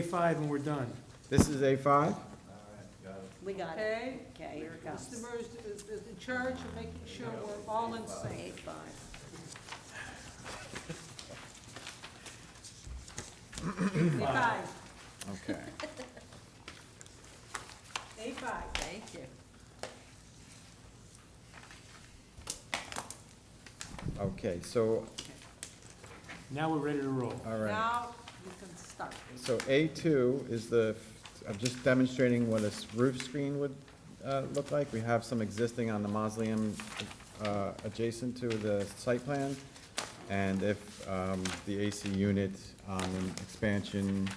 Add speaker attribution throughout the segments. Speaker 1: A5 and we're done.
Speaker 2: This is A5?
Speaker 3: We got it.
Speaker 4: Okay,
Speaker 3: Okay, here it
Speaker 4: Mr.
Speaker 3: comes.
Speaker 4: Murs is, is in charge of making sure we're all in sync.
Speaker 3: Eight five.
Speaker 4: A5,
Speaker 2: Okay.
Speaker 4: A5.
Speaker 3: Thank you.
Speaker 2: Okay, so,
Speaker 1: Now we're ready to roll.
Speaker 2: all right.
Speaker 4: Now you can start.
Speaker 2: So A2 is the, I'm just demonstrating what a s- roof screen would uh, look like. We have some existing on the mausoleum uh, adjacent to the site plan. And if um, the AC unit on an expansion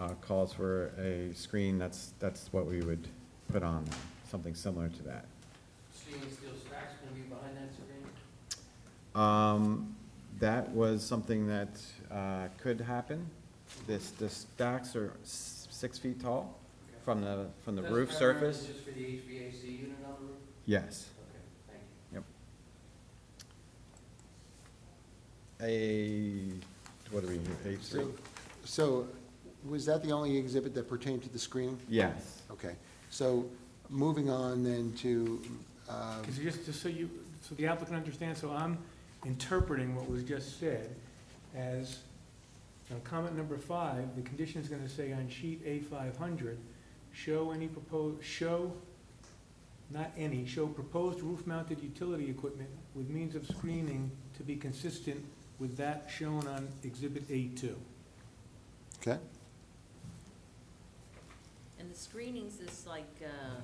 Speaker 2: uh, calls for a screen, that's, that's what we would put on, something similar to that.
Speaker 5: stainless steel stacks gonna be behind that screen?
Speaker 2: Um, that was something that, uh, could happen. This, the stacks are s- six feet tall from the, from the
Speaker 5: That's
Speaker 2: roof
Speaker 5: primarily
Speaker 2: surface.
Speaker 5: Just for the HVAC unit on the roof?
Speaker 2: Yes.
Speaker 5: Okay, thank you.
Speaker 2: A, what are we, A three?
Speaker 6: So, so was that the only exhibit that pertained to the screening?
Speaker 2: Yes.
Speaker 6: Okay, so moving on then to, uh,
Speaker 1: Because just, just so you, so the applicant understands, so I'm interpreting what was just said as, on comment number five, the condition is gonna say on sheet A five hundred, show any proposed, show, not any, show proposed roof-mounted utility equipment with means of screening to be consistent with that shown on exhibit A two.
Speaker 6: okay,
Speaker 3: And the screenings is like, uh,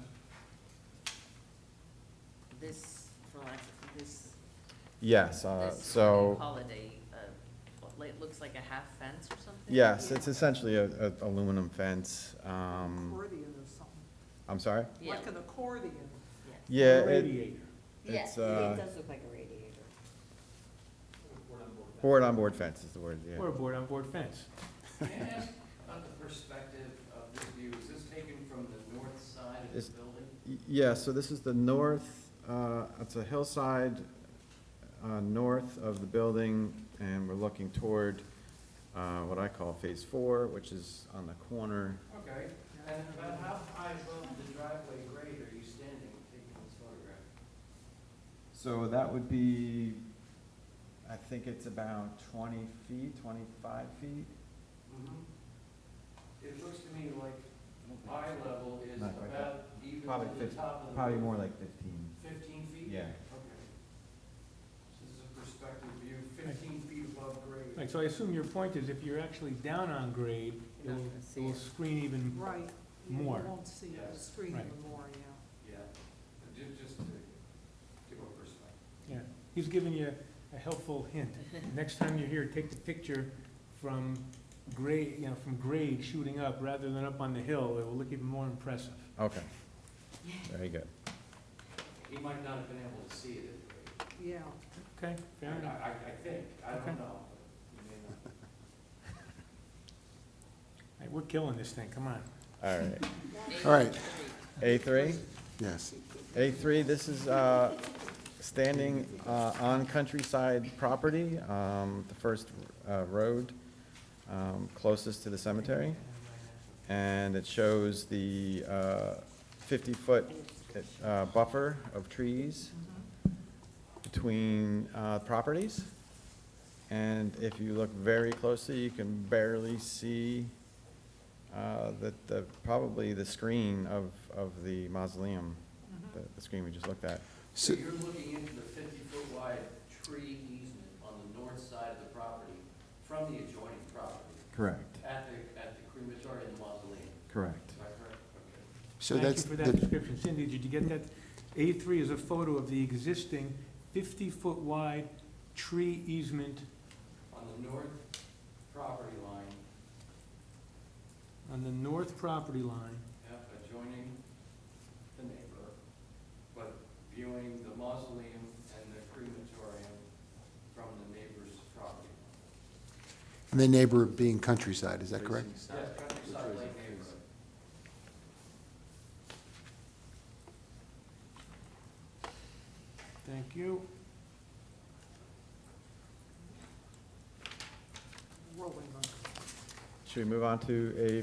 Speaker 3: this, for lack of, this,
Speaker 2: Yes, uh,
Speaker 3: this, what do you
Speaker 2: so,
Speaker 3: call it, a, uh, what, like, it looks like a half fence or something?
Speaker 2: yes, it's essentially a, a aluminum fence, um,
Speaker 4: Accordion or something,
Speaker 2: I'm sorry?
Speaker 3: Yeah,
Speaker 4: like an accordion.
Speaker 3: yeah.
Speaker 2: Yeah, it,
Speaker 1: Radiator.
Speaker 2: it's, uh,
Speaker 3: look like a radiator.
Speaker 2: board on board fence is the word, yeah.
Speaker 1: Or a board-on-board fence.
Speaker 5: May I ask about the perspective of this view, is this taken from the north side of
Speaker 2: It's-
Speaker 5: the building?
Speaker 2: Y- Yeah, so this is the north, uh, it's a hillside uh, north of the building, and we're looking toward uh, what I call Phase Four, which is on the corner.
Speaker 5: Okay, and about how high above the driveway grade are you standing taking this photograph?
Speaker 2: So that would be, I think it's about 20 feet, 25 feet?
Speaker 5: Mm-hmm. It looks to me like eye level is
Speaker 2: Not quite that.
Speaker 5: about even
Speaker 2: Probably
Speaker 5: to the
Speaker 2: fif-
Speaker 5: top of the.
Speaker 2: Probably
Speaker 5: roof.
Speaker 2: more like 15.
Speaker 5: Fifteen feet?
Speaker 2: Yeah.
Speaker 5: Okay. So This is a perspective view, fifteen feet above grade.
Speaker 1: Right, so I assume your point is if you're actually down on grade, it
Speaker 3: You're not
Speaker 1: will,
Speaker 3: gonna
Speaker 1: it
Speaker 3: see
Speaker 1: will
Speaker 3: it.
Speaker 1: screen even,
Speaker 4: Right. You-
Speaker 1: More.
Speaker 4: You won't see the
Speaker 5: Yes.
Speaker 4: screen
Speaker 1: Right.
Speaker 4: anymore, yeah.
Speaker 5: Yeah, just, just to give a perspective.
Speaker 1: yeah. He's giving you a helpful hint. Next time you're here, take the picture from grade, you know, from grade shooting up rather than up on the hill. It will look even more impressive.
Speaker 2: Okay. Very good.
Speaker 5: He might not have been able to see it at
Speaker 4: Yeah,
Speaker 1: Okay, fair
Speaker 5: grade. I,
Speaker 1: enough.
Speaker 5: I, I think, I
Speaker 1: Okay.
Speaker 5: don't know, but you may not.
Speaker 1: All right, We're killing this thing, come on.
Speaker 2: All right.
Speaker 6: All right.
Speaker 2: A3?
Speaker 6: yes.
Speaker 2: A3, this is uh, standing uh, on countryside property, um, the first uh, road um, closest to the cemetery. And it shows the uh, 50-foot uh, buffer of trees between uh, properties. And if you look very closely, you can barely see uh, the, the, probably the screen of, of the mausoleum, the- the screen we just looked at.
Speaker 5: So
Speaker 6: So-
Speaker 5: you're looking into the fifty-foot wide tree easement on the north side of the property from the adjoining property
Speaker 2: Correct,
Speaker 5: at the, at the crematory and the mausoleum,
Speaker 2: correct.
Speaker 5: is that correct? Okay.
Speaker 6: So that's,
Speaker 1: Thank you for that
Speaker 6: the-
Speaker 1: description. Cindy, did you get that? A3 is a photo of the existing 50-foot wide tree easement
Speaker 5: On the north property line,
Speaker 1: on the north property line.
Speaker 5: yeah, adjoining the neighbor, but viewing the mausoleum and the crematorium from the neighbor's property.
Speaker 6: the neighbor being countryside, is that correct?
Speaker 5: Yes, countryside lane neighborhood.
Speaker 1: Thank you.
Speaker 4: rolling on.
Speaker 2: Should we move on to a